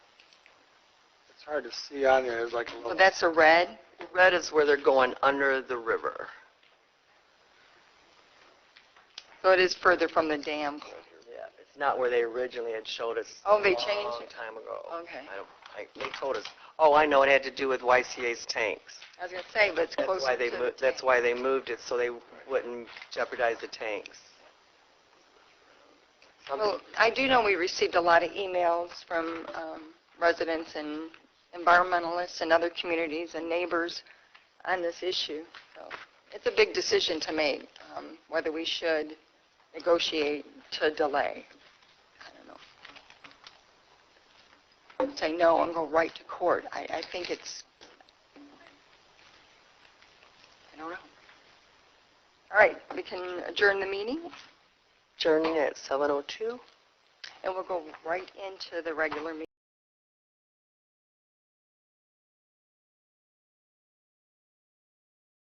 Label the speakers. Speaker 1: It's hard to see on there, there's like a
Speaker 2: Well,
Speaker 1: little,
Speaker 2: that's a red.
Speaker 3: Red is where they're going under the river.
Speaker 2: So it is further from the dam.
Speaker 3: Yeah, it's not where they originally had showed us.
Speaker 2: Oh, they
Speaker 3: a
Speaker 2: changed
Speaker 3: long
Speaker 2: it. Oh.
Speaker 3: time ago.
Speaker 2: Okay.
Speaker 3: I don't, I, they told us, oh, I know, it had to do with YCA's tanks.
Speaker 2: I was gonna say, but it's
Speaker 3: That's why
Speaker 2: closer
Speaker 3: they,
Speaker 2: to the
Speaker 3: mo- that's
Speaker 2: tank.
Speaker 3: why they moved it, so they wouldn't jeopardize the tanks. Something-
Speaker 2: Well, I do know we received a lot of emails from um, residents and environmentalists and other communities and neighbors on this issue. So It's a big decision to make, um, whether we should negotiate to delay. I don't know. Say no and go right to court. I, I think it's, I don't know. All right, we can adjourn the meeting.
Speaker 3: Journey at 7:02?
Speaker 2: And we'll go right into the regular meeting.